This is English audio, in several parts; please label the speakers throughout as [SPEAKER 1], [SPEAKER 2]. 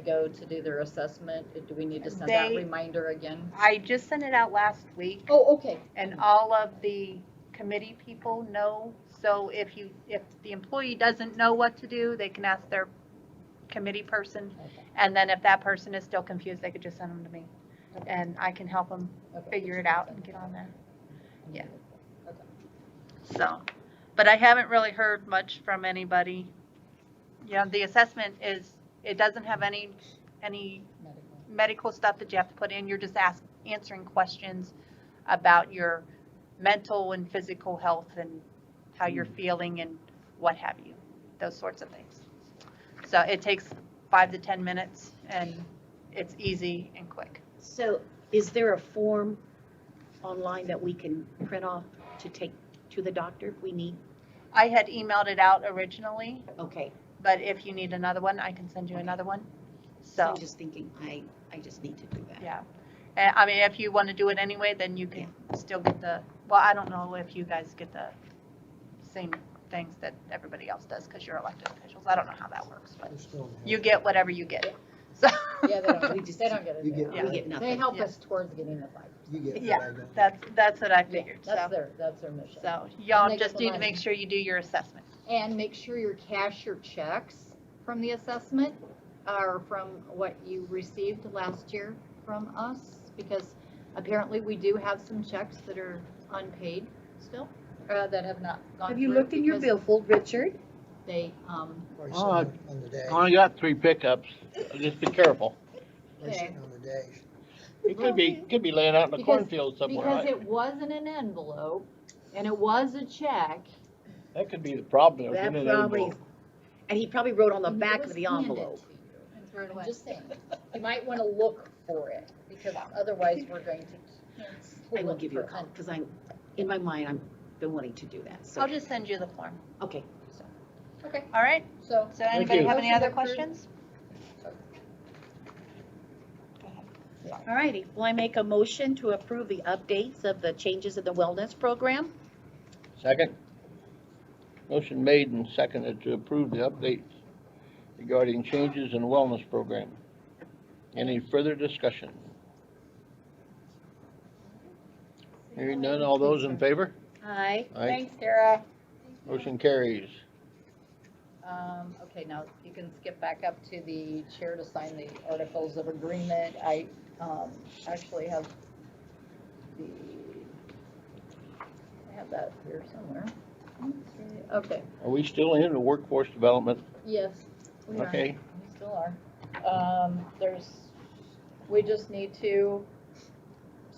[SPEAKER 1] they go to do their assessment? Do we need to send that
[SPEAKER 2] They-
[SPEAKER 1] reminder again?
[SPEAKER 2] I just sent it out last week
[SPEAKER 1] Oh, okay.
[SPEAKER 2] and all of the committee people know. So if you, if the employee doesn't know what to do, they can ask their committee person.
[SPEAKER 1] Okay.
[SPEAKER 2] And then if that person is still confused, they could just send them to me
[SPEAKER 1] Okay.
[SPEAKER 2] and I can help them
[SPEAKER 1] Okay.
[SPEAKER 2] figure it out and get on there. yeah.
[SPEAKER 1] Okay.
[SPEAKER 2] So, but I haven't really heard much from anybody. You know, the assessment is, it doesn't have any, any
[SPEAKER 1] Medical.
[SPEAKER 2] medical stuff that you have to put in. You're just ask, answering questions about your mental and physical health and how you're feeling and what have you, those sorts of things. So it takes five to 10 minutes and it's easy and quick.
[SPEAKER 3] So is there a form online that we can print off to take to the doctor if we need?
[SPEAKER 2] I had emailed it out originally,
[SPEAKER 3] Okay,
[SPEAKER 2] but if you need another one, I can send you another one. So,
[SPEAKER 3] I'm just thinking, I, I just need to do that.
[SPEAKER 2] yeah. And, I mean, if you want to do it anyway, then you can still get the, well, I don't know if you guys get the same things that everybody else does because you're elected officials. I don't know how that works, but
[SPEAKER 4] We're still in the
[SPEAKER 2] you
[SPEAKER 4] house.
[SPEAKER 2] get whatever you get. So
[SPEAKER 1] Yeah, they don't, they don't get
[SPEAKER 4] You
[SPEAKER 1] it.
[SPEAKER 4] get
[SPEAKER 1] there.
[SPEAKER 3] We get
[SPEAKER 1] They
[SPEAKER 3] nothing.
[SPEAKER 1] help
[SPEAKER 2] Yeah.
[SPEAKER 1] us towards getting the fight.
[SPEAKER 4] You get.
[SPEAKER 2] Yeah,
[SPEAKER 4] what I got.
[SPEAKER 2] that's, that's what I figured.
[SPEAKER 1] That's
[SPEAKER 2] So,
[SPEAKER 1] their, that's their mission.
[SPEAKER 2] so y'all
[SPEAKER 1] They get
[SPEAKER 2] just
[SPEAKER 1] the
[SPEAKER 2] need to
[SPEAKER 1] money.
[SPEAKER 2] make sure you do your assessment.
[SPEAKER 1] And make sure you cash your checks from the assessment or from what you received last year from us, because apparently we do have some checks that are unpaid still, uh, that have not gone
[SPEAKER 5] Have you
[SPEAKER 1] through
[SPEAKER 5] looked in your
[SPEAKER 1] because
[SPEAKER 5] billfold, Richard?
[SPEAKER 1] They, um,
[SPEAKER 4] We're
[SPEAKER 6] Oh, I-
[SPEAKER 4] sitting on the dash.
[SPEAKER 6] I only got three pickups, just be careful.
[SPEAKER 4] We're sitting on the dash.
[SPEAKER 6] It could be, could be laying out in a
[SPEAKER 1] Because-
[SPEAKER 6] cornfield somewhere.
[SPEAKER 1] because
[SPEAKER 6] I-
[SPEAKER 1] it wasn't an envelope and it was a check.
[SPEAKER 6] That could be the problem.
[SPEAKER 5] That
[SPEAKER 6] That
[SPEAKER 5] probably,
[SPEAKER 3] And he probably wrote on the
[SPEAKER 1] and it
[SPEAKER 3] back
[SPEAKER 1] was
[SPEAKER 3] of the
[SPEAKER 1] handed
[SPEAKER 3] envelope.
[SPEAKER 1] to you. I'm just saying, you might wanna look for it, because otherwise we're going to.
[SPEAKER 3] I will give you a call, because I'm, in my mind, i am been wanting to do that,
[SPEAKER 2] I'll
[SPEAKER 3] so,
[SPEAKER 2] just send you the form.
[SPEAKER 3] okay.
[SPEAKER 1] Okay,
[SPEAKER 2] All right?
[SPEAKER 1] so.
[SPEAKER 2] So anybody
[SPEAKER 6] you.
[SPEAKER 2] have any
[SPEAKER 1] Motion
[SPEAKER 2] other
[SPEAKER 1] approved.
[SPEAKER 2] questions?
[SPEAKER 5] all righty, will I make a motion to approve the updates of the changes in the wellness program?
[SPEAKER 6] Second. Motion made and seconded to approve the updates regarding changes in wellness program. Any further discussion? Hearing none, all those in favor?
[SPEAKER 5] Aye.
[SPEAKER 6] Aye.
[SPEAKER 2] Tara.
[SPEAKER 6] Motion carries.
[SPEAKER 1] Um, okay, now you can skip back up to the chair to sign the articles of agreement. I, um, actually have the, I have that here somewhere. Okay,
[SPEAKER 6] Are we still in the workforce development?
[SPEAKER 1] yes, we are,
[SPEAKER 6] Okay,
[SPEAKER 1] we still are. Um, there's, we just need to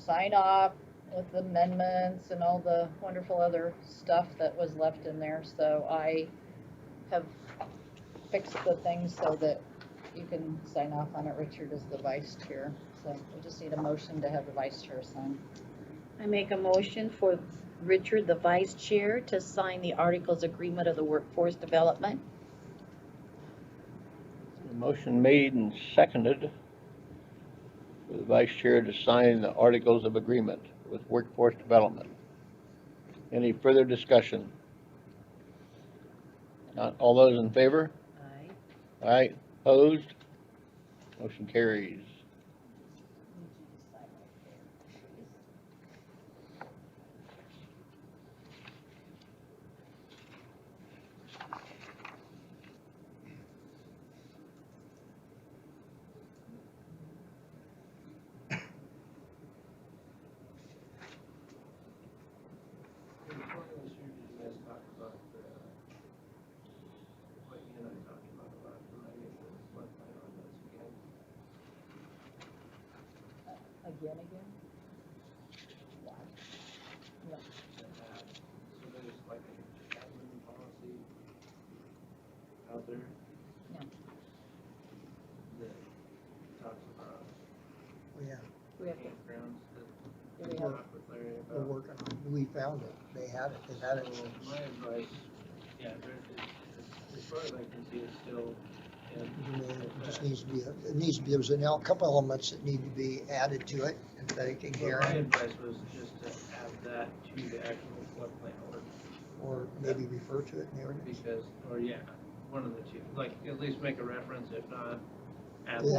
[SPEAKER 1] sign off with amendments and all the wonderful other stuff that was left in there, so I have fixed the things so that you can sign off on it, Richard is the vice chair, so we just need a motion to have the vice chair sign.
[SPEAKER 5] I make a motion for Richard, the vice chair, to sign the articles agreement of the workforce development.
[SPEAKER 6] motion made and seconded for the vice chair to sign the articles of agreement with workforce development. Any further discussion? Not all those in favor?
[SPEAKER 5] Aye.
[SPEAKER 6] Aye, opposed? Motion carries.
[SPEAKER 1] Again, again? Wow.
[SPEAKER 7] So there's like a admin policy out there?
[SPEAKER 1] No.
[SPEAKER 7] That talks about
[SPEAKER 4] Well, Yeah,
[SPEAKER 1] We have
[SPEAKER 7] campgrounds
[SPEAKER 1] to, do
[SPEAKER 7] that we
[SPEAKER 1] we have,
[SPEAKER 7] talked with Larry
[SPEAKER 4] we're
[SPEAKER 7] about.
[SPEAKER 4] working on, it. we found it, they had it, they had it.
[SPEAKER 7] So my advice, yeah, there- it's- as far as I can see, it's still in
[SPEAKER 4] I mean, It just needs to be, it needs to be, there's an, el- couple elements that need to be added to it, if they can
[SPEAKER 7] Well,
[SPEAKER 4] hear
[SPEAKER 7] my
[SPEAKER 4] it,
[SPEAKER 7] advice was just to add that to the actual floodplain ordinance,
[SPEAKER 4] or maybe refer to it in the ordinance.
[SPEAKER 7] because, or yeah, one of the two, like, at least make a reference, if not, applicant.